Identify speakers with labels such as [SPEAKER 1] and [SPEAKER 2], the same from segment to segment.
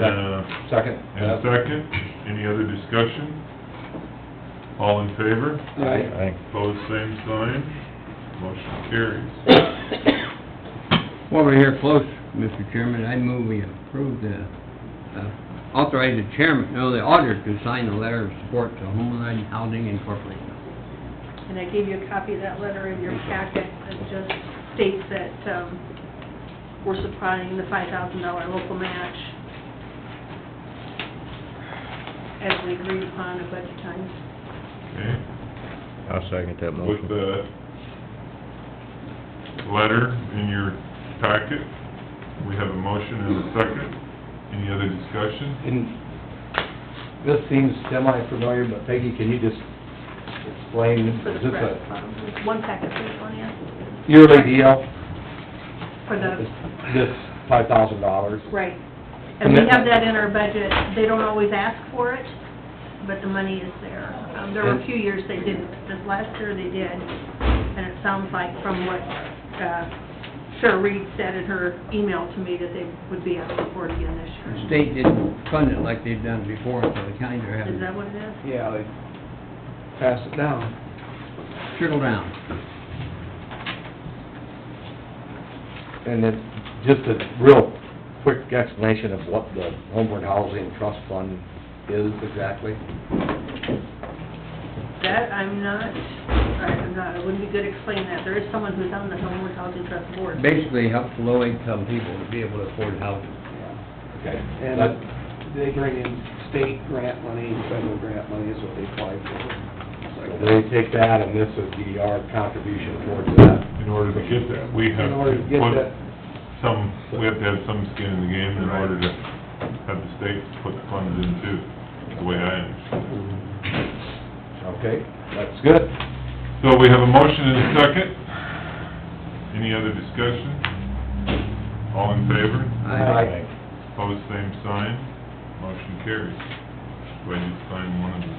[SPEAKER 1] Uh,
[SPEAKER 2] Second?
[SPEAKER 1] and a second, any other discussion? All in favor?
[SPEAKER 2] Aye.
[SPEAKER 1] Pose same sign, motion carries.
[SPEAKER 3] While we're here close, Mr. Chairman, I move we approve the, uh, authorize the chairman, no, the auditor to sign the letter of support to Homeland Housing Incorporated.
[SPEAKER 4] And I gave you a copy of that letter in your packet that just states that um, we're supplying the $5,000 local match as we agreed upon at budget time.
[SPEAKER 1] Okay,
[SPEAKER 5] I'll second that
[SPEAKER 1] with
[SPEAKER 5] motion.
[SPEAKER 1] the letter in your packet, we have a motion and a second. Any other discussion?
[SPEAKER 2] And this seems semi-familiar, but Peggy, can you just explain,
[SPEAKER 4] For
[SPEAKER 2] is
[SPEAKER 4] the
[SPEAKER 2] this
[SPEAKER 4] press,
[SPEAKER 2] a
[SPEAKER 4] um, one packet for each one, yeah?
[SPEAKER 2] yearly deal?
[SPEAKER 4] For the,
[SPEAKER 2] This- This five thousand dollars?
[SPEAKER 4] right. And we have that in our budget. They don't always ask for it, but the money is there. Um, There were a few years they didn't. This last year they did, and it sounds like from what uh, Cheryl Reed said in her email to me that they would be asking for it again this year.
[SPEAKER 3] The state didn't fund it like they've done before, so the counties are having
[SPEAKER 4] Is that
[SPEAKER 3] to
[SPEAKER 4] what it is?
[SPEAKER 2] Yeah, they pass it down.
[SPEAKER 3] trickle down.
[SPEAKER 2] And then, just a real quick explanation of what the Homeward Housing Trust Fund is exactly.
[SPEAKER 4] That, I'm not, I'm not, it wouldn't be good explaining that. There is someone who's on the Homewood Housing Trust Board.
[SPEAKER 3] Basically helps low-income people to be able to afford housing.
[SPEAKER 2] Okay.
[SPEAKER 6] And they bring in state grant money, and federal grant money is what they apply
[SPEAKER 2] So
[SPEAKER 6] for.
[SPEAKER 2] They take that, and this would be our contribution towards that.
[SPEAKER 1] In order to get that, we have
[SPEAKER 6] In
[SPEAKER 1] to
[SPEAKER 6] order to get
[SPEAKER 1] put
[SPEAKER 6] that-
[SPEAKER 1] some, we have to have some skin in the game in order to have the state put the funds in too, is the way I understand it.
[SPEAKER 2] Okay, that's good.
[SPEAKER 1] So we have a motion and a second. Any other discussion? All in favor?
[SPEAKER 2] Aye.
[SPEAKER 1] Pose same sign. Motion carries. Do I need to sign one of them?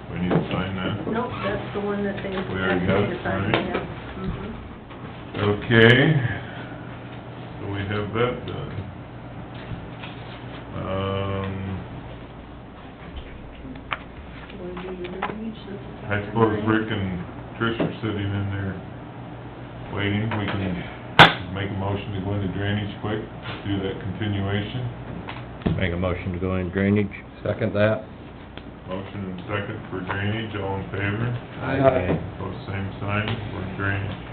[SPEAKER 1] Do I need to sign that?
[SPEAKER 4] Nope, that's the one that they.
[SPEAKER 1] We already got it,
[SPEAKER 4] Sign,
[SPEAKER 1] right?
[SPEAKER 4] yeah. Mhm.
[SPEAKER 1] Okay, so we have that done. Um, I suppose Rick and Trish are sitting in there waiting. We can make a motion to go into drainage quick, do that continuation.
[SPEAKER 5] Make a motion to go in drainage.
[SPEAKER 2] Second that.
[SPEAKER 1] Motion and second for drainage, all in favor?
[SPEAKER 2] Aye.
[SPEAKER 1] Both same sign, for drainage.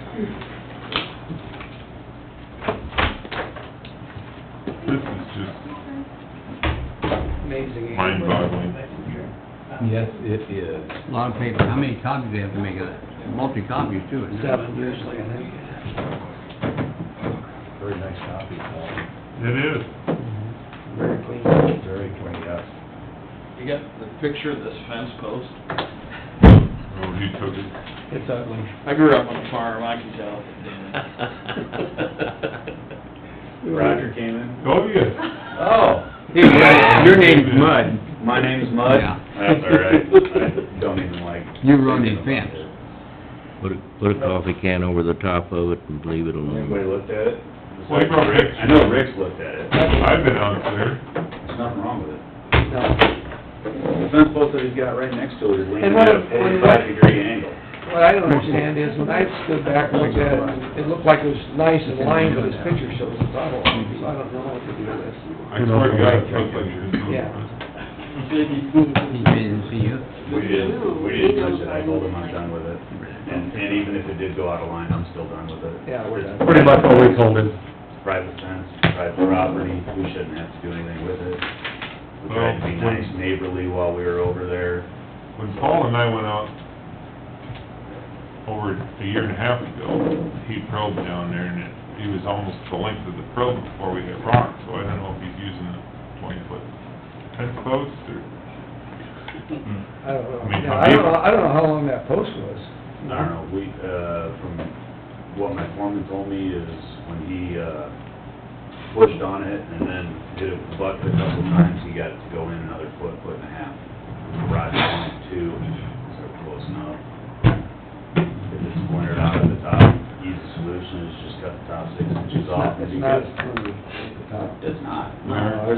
[SPEAKER 1] This is just
[SPEAKER 6] Amazing.
[SPEAKER 1] mind-boggling.
[SPEAKER 2] Yes, it is.
[SPEAKER 3] A lot of paper. How many copies do they have to make of that? Multi-copies too, isn't it?
[SPEAKER 6] Seven usually, I think.
[SPEAKER 2] Very nice copy, Paul.
[SPEAKER 1] It is.
[SPEAKER 6] Very clean.
[SPEAKER 2] Very clean, yes.
[SPEAKER 7] You got the picture of this fence post?
[SPEAKER 1] Oh, he took it.
[SPEAKER 6] It's ugly.
[SPEAKER 7] I grew up on a farm, I can tell.
[SPEAKER 6] Roger came in.
[SPEAKER 1] Oh, yeah.
[SPEAKER 7] Oh.
[SPEAKER 3] Hey, your- Your name's Mud.
[SPEAKER 7] My name's
[SPEAKER 3] Yeah.
[SPEAKER 7] That's all right. I don't even like.
[SPEAKER 3] You run in fence.
[SPEAKER 5] Put a, put a coffee can over the top of it and leave it
[SPEAKER 7] Anybody
[SPEAKER 5] alone.
[SPEAKER 7] looked at it?
[SPEAKER 1] Well, I brought Rick.
[SPEAKER 7] I know Rick's looked at it.
[SPEAKER 1] I've been out there.
[SPEAKER 7] There's nothing wrong with it.
[SPEAKER 6] No.
[SPEAKER 7] The fence post that he's got right next to it is leaning
[SPEAKER 6] And
[SPEAKER 7] at
[SPEAKER 6] what
[SPEAKER 7] a
[SPEAKER 6] if-
[SPEAKER 7] forty-five degree angle.
[SPEAKER 6] What I don't understand is, when I stood back and looked at it, it looked like it was nice and lined, but this picture shows it's puddle, so I don't know what to do with this.
[SPEAKER 1] I swear to God, it looked like it was...
[SPEAKER 6] Yeah.
[SPEAKER 3] He didn't see you.
[SPEAKER 7] We didn't, we didn't touch it, I told him I'm done with it. And, and even if it did go out of line, I'm still done with it.
[SPEAKER 6] Yeah, we're done.
[SPEAKER 2] Pretty much what we told him.
[SPEAKER 7] private fence, private property, we shouldn't have to do anything with it. We tried to be
[SPEAKER 1] Well, when-
[SPEAKER 7] nice neighborly while we were over there.
[SPEAKER 1] When Paul and I went out over a year and a half ago, he probed down there and it, he was almost the length of the probe before we hit rock, so I don't know if he's using a twenty-foot fence post or...
[SPEAKER 6] I don't know.
[SPEAKER 1] I mean,
[SPEAKER 6] Yeah,
[SPEAKER 1] how
[SPEAKER 6] I don't
[SPEAKER 1] deep-
[SPEAKER 6] know, I don't know how long that post was.
[SPEAKER 7] I don't know, we, uh, from what my foreman told me is when he, uh, pushed on it and then did a buck a couple times, he got it to go in another foot, foot and a half. Rod point two, so close enough. If it's pointed out at the top, easy solution is just cut the top six inches off. and
[SPEAKER 6] It's
[SPEAKER 7] you
[SPEAKER 6] not
[SPEAKER 7] got-
[SPEAKER 6] as smooth at the top.
[SPEAKER 7] It's not.
[SPEAKER 6] No, there's